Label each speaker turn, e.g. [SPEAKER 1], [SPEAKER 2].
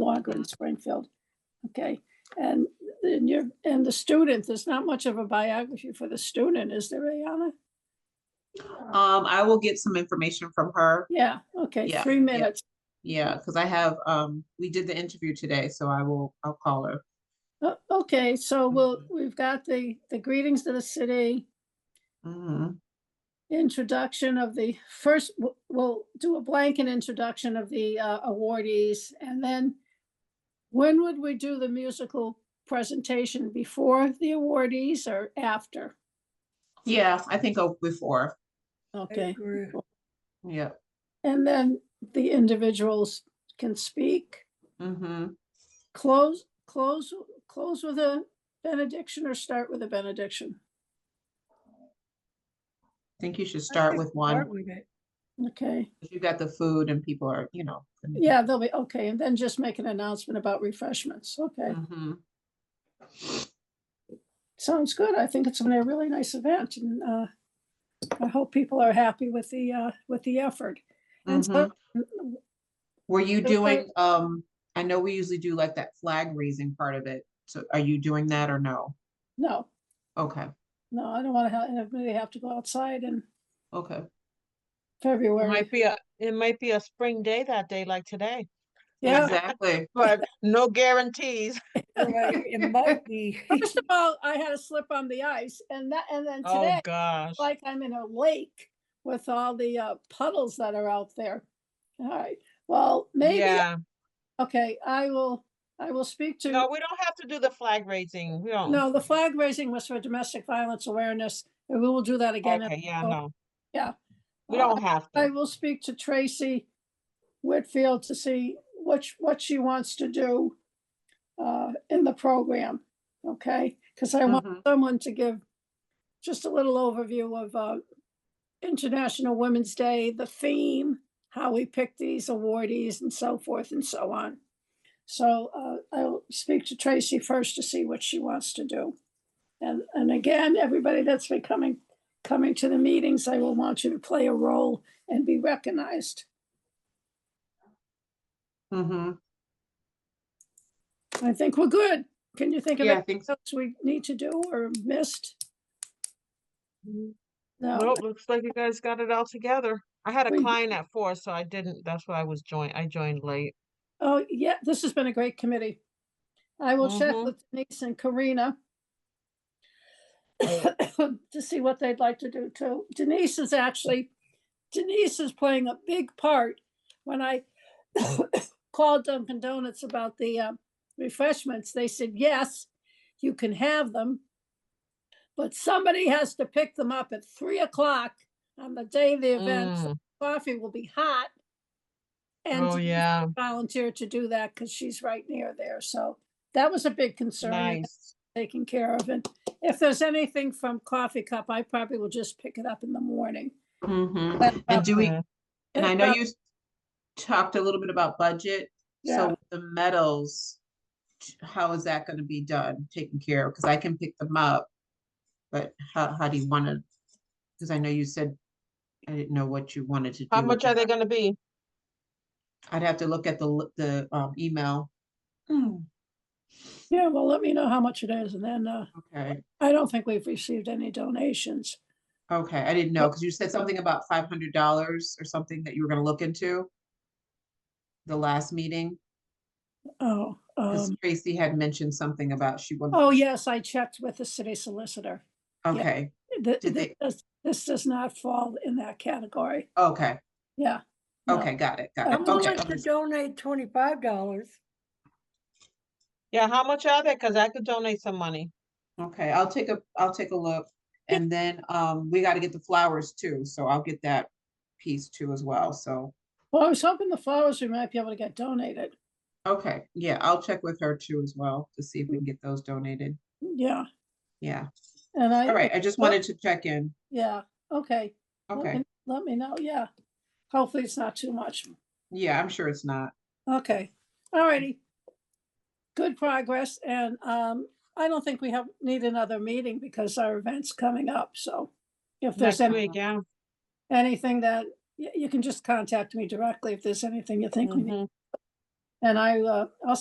[SPEAKER 1] Concord and Springfield. Okay, and then you're, and the student, there's not much of a biography for the student, is there, Ayana?
[SPEAKER 2] Um, I will get some information from her.
[SPEAKER 1] Yeah, okay,
[SPEAKER 2] Yeah,
[SPEAKER 1] three
[SPEAKER 2] yeah.
[SPEAKER 1] minutes.
[SPEAKER 2] Yeah, because I have, um, we did the interview today, so I will, I'll call her.
[SPEAKER 1] O- Uh, Okay, so
[SPEAKER 2] Mm-hmm.
[SPEAKER 1] we'll, we've got the, the greetings to the city,
[SPEAKER 2] Mhm.
[SPEAKER 1] introduction of the first, w- we'll do a blanket introduction of the uh, awardees. And then when would we do the musical presentation? Before the awardees or after?
[SPEAKER 2] Yeah, I think I'll before,
[SPEAKER 1] Okay.
[SPEAKER 2] yeah.
[SPEAKER 1] And then the individuals can speak.
[SPEAKER 2] Mm-hmm.
[SPEAKER 1] Close, close, close with a benediction or start with a benediction.
[SPEAKER 2] Think you should start with one.
[SPEAKER 1] Okay.
[SPEAKER 2] if You got the food and people are, you know. and-
[SPEAKER 1] Yeah, they'll be, okay. And then just make an announcement about refreshments. Okay.
[SPEAKER 2] Mhm.
[SPEAKER 1] Sounds good. I think it's gonna be a really nice event and uh, I hope people are happy with the, uh, with the effort. And so,
[SPEAKER 2] Mhm. Were you
[SPEAKER 1] so-
[SPEAKER 2] doing, um, I know we usually do like that flag raising part of it. So are you doing that or no?
[SPEAKER 1] no,
[SPEAKER 2] Okay,
[SPEAKER 1] no, I don't want to have, anybody have to go outside in
[SPEAKER 2] okay.
[SPEAKER 3] It
[SPEAKER 1] February.
[SPEAKER 3] might be a, it might be a spring day that day like today,
[SPEAKER 1] Yeah,
[SPEAKER 2] Exactly.
[SPEAKER 3] but no guarantees.
[SPEAKER 4] It might be.
[SPEAKER 1] first of all, I had a slip on the ice and that, and then
[SPEAKER 3] Oh,
[SPEAKER 1] today,
[SPEAKER 3] gosh.
[SPEAKER 1] like I'm in a lake with all the uh, puddles that are out there. All right, well, maybe,
[SPEAKER 3] Yeah,
[SPEAKER 1] okay, I will, I will speak to.
[SPEAKER 3] no, we don't have to do the flag raising. We don't.
[SPEAKER 1] No, the flag raising was for domestic violence awareness, and we will do that again.
[SPEAKER 3] Okay, yeah,
[SPEAKER 1] so-
[SPEAKER 3] no.
[SPEAKER 1] yeah.
[SPEAKER 3] We
[SPEAKER 1] Uh,
[SPEAKER 3] don't have
[SPEAKER 1] I
[SPEAKER 3] to.
[SPEAKER 1] will speak to Tracy Whitfield to see what, sh- what she wants to do uh, in the program, okay? Because I want
[SPEAKER 2] Mhm.
[SPEAKER 1] someone to give just a little overview of uh, International Women's Day, the theme, how we pick these awardees and so forth and so on. So uh, I'll speak to Tracy first to see what she wants to do. And, and again, everybody that's been coming, coming to the meetings, I will want you to play a role and be recognized.
[SPEAKER 2] Mhm.
[SPEAKER 1] I think we're good. Can you think of
[SPEAKER 2] Yeah, I
[SPEAKER 1] anything
[SPEAKER 2] think so.
[SPEAKER 1] else we need to do or missed?
[SPEAKER 3] Mm,
[SPEAKER 1] No,
[SPEAKER 3] Nope, looks like you guys got it all together. I had
[SPEAKER 1] We-
[SPEAKER 3] a client at four, so I didn't, that's why I was joined, I joined late.
[SPEAKER 1] oh, yeah, this has been a great committee. I will check
[SPEAKER 3] Mhm.
[SPEAKER 1] with Denise and Karina to see what they'd like to do too. Denise is actually, Denise is playing a big part. When I called Dunkin' Donuts about the uh, refreshments, they said, yes, you can have them. But somebody has to pick them up at three o'clock on the day of the event. so
[SPEAKER 3] Mm,
[SPEAKER 1] Coffee will be hot. And
[SPEAKER 3] Oh,
[SPEAKER 1] Denise
[SPEAKER 3] yeah,
[SPEAKER 1] volunteered to do that because she's right near there. So that was a big concern. and
[SPEAKER 3] nice.
[SPEAKER 1] taken care of. And if there's anything from Coffee Cup, I probably will just pick it up in the morning.
[SPEAKER 2] Mhm.
[SPEAKER 1] That's
[SPEAKER 2] And do we,
[SPEAKER 3] Yeah.
[SPEAKER 2] And I know
[SPEAKER 1] about-
[SPEAKER 2] you s- talked a little bit about budget,
[SPEAKER 1] Yeah.
[SPEAKER 2] so with the medals, t- how is that gonna be done, taken care of? Cause I can pick them up. But how, how do you wanna, cause I know you said, I didn't know what you wanted to do.
[SPEAKER 3] How
[SPEAKER 2] with
[SPEAKER 3] much
[SPEAKER 2] the
[SPEAKER 3] are they
[SPEAKER 2] med-
[SPEAKER 3] gonna be?
[SPEAKER 2] I'd have to look at the, l- the, um, email. Mm,
[SPEAKER 1] Yeah, well, let me know how much it is. And then uh,
[SPEAKER 2] Okay,
[SPEAKER 1] I don't think we've received any donations.
[SPEAKER 2] okay, I didn't know, cause you said something about five hundred dollars or something that you were gonna look into. The last meeting,
[SPEAKER 1] Oh,
[SPEAKER 2] cause
[SPEAKER 1] um,
[SPEAKER 2] Tracy had mentioned something about she wanted,
[SPEAKER 1] oh, yes, I checked with the city solicitor. yeah.
[SPEAKER 2] okay,
[SPEAKER 1] Th-
[SPEAKER 2] Did
[SPEAKER 1] th-
[SPEAKER 2] they-
[SPEAKER 1] This this does not fall in that category.
[SPEAKER 2] okay,
[SPEAKER 1] Yeah. no.
[SPEAKER 2] okay, got it, got
[SPEAKER 4] I'm
[SPEAKER 2] it, okay.
[SPEAKER 4] willing to donate twenty-five dollars.
[SPEAKER 3] Yeah, how much are they? Cause I could donate some money.
[SPEAKER 2] Okay, I'll take a, I'll take a look, and then, um, we gotta get the flowers too, so I'll get that piece too as well, so.
[SPEAKER 1] Well, I was hoping the flowers we might be able to get donated.
[SPEAKER 2] Okay, yeah, I'll check with her too as well, to see if we can get those donated,
[SPEAKER 1] Yeah.
[SPEAKER 2] yeah,
[SPEAKER 1] And I.
[SPEAKER 2] all right, I just
[SPEAKER 1] well-
[SPEAKER 2] wanted to check in,
[SPEAKER 1] Yeah. Okay. let
[SPEAKER 2] okay,
[SPEAKER 1] me- Let me know. Yeah. Hopefully it's not too much.
[SPEAKER 2] yeah, I'm sure it's not.
[SPEAKER 1] Okay, all righty. Good progress, and um, I don't think we have, need another meeting because our event's coming up, so. If there's
[SPEAKER 3] Next
[SPEAKER 1] any,
[SPEAKER 3] week, yeah.
[SPEAKER 1] anything that,
[SPEAKER 3] Mm-hmm.
[SPEAKER 1] you, you can just contact me directly if there's anything you think we need,
[SPEAKER 3] mhm.
[SPEAKER 1] and I, uh, I'll